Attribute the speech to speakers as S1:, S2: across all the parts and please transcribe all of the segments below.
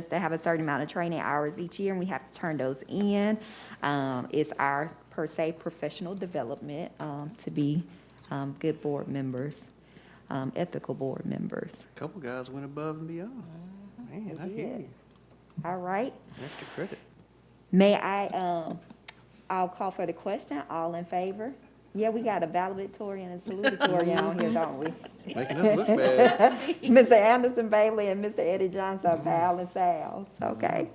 S1: supposed to have a certain amount of training hours each year, and we have to turn those in. Um, It's our, per se, professional development um, to be um, good board members, um, ethical board members.
S2: Couple guys went above and beyond. Man, I hear you.
S1: All right?
S2: Extra credit.
S1: May I, um, I'll call for the question. All in favor? Yeah, we got a valedictorian and salutatorian on here, don't we?
S2: Making us look bad.
S1: Mr. Anderson Bailey and Mr. Eddie Johnson are Val and Sal's, okay?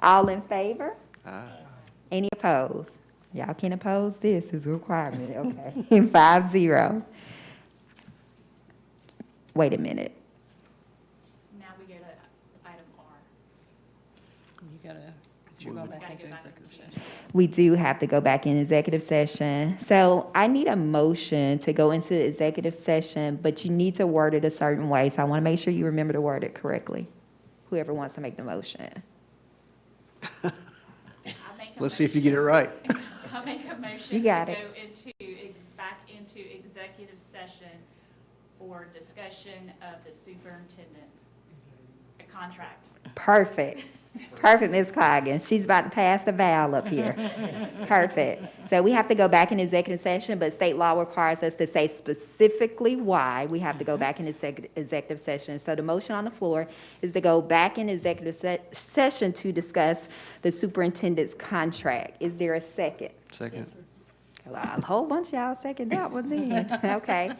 S1: All in favor?
S2: Aye.
S1: Any opposed? Y'all can oppose this, it's a requirement, okay? Five zero. Wait a minute.
S3: Now we go to item R.
S4: You gotta, you go back
S3: Gotta
S4: into
S3: go back
S4: executive
S3: into
S4: session.
S1: We do have to go back in executive session. So I need a motion to go into executive session, but you need to word it a certain way. So I want to make sure you remember to word it correctly. Whoever wants to make the motion.
S3: I make a
S2: Let's see if you
S3: motion-
S2: get it right.
S3: I make a
S1: You
S3: motion to
S1: got
S3: go
S1: it.
S3: into, ex- back into executive session for discussion of the superintendent's uh, contract.
S1: Perfect. Perfect, Ms. Coggins. She's about to pass the valve up here. Perfect. So we have to go back in executive session, but state law requires us to say specifically why we have to go back in exec- executive session. So the motion on the floor is to go back in executive se- session to discuss the superintendent's contract. Is there a second?
S2: Second.
S1: Well, A whole bunch of y'all second that one then. Okay.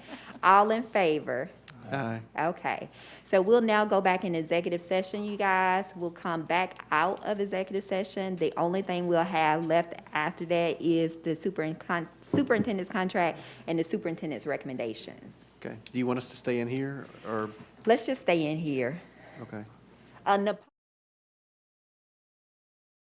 S1: All in favor?
S2: Aye.
S1: Okay, so we'll now go back in executive session, you guys. We'll come back out of executive session. The only thing we'll have left after that is the superin- con- superintendent's contract and the superintendent's recommendations.
S2: Okay. Do you want us to stay in here or,
S1: Let's just stay in here.
S2: okay.
S1: Uh, Nap-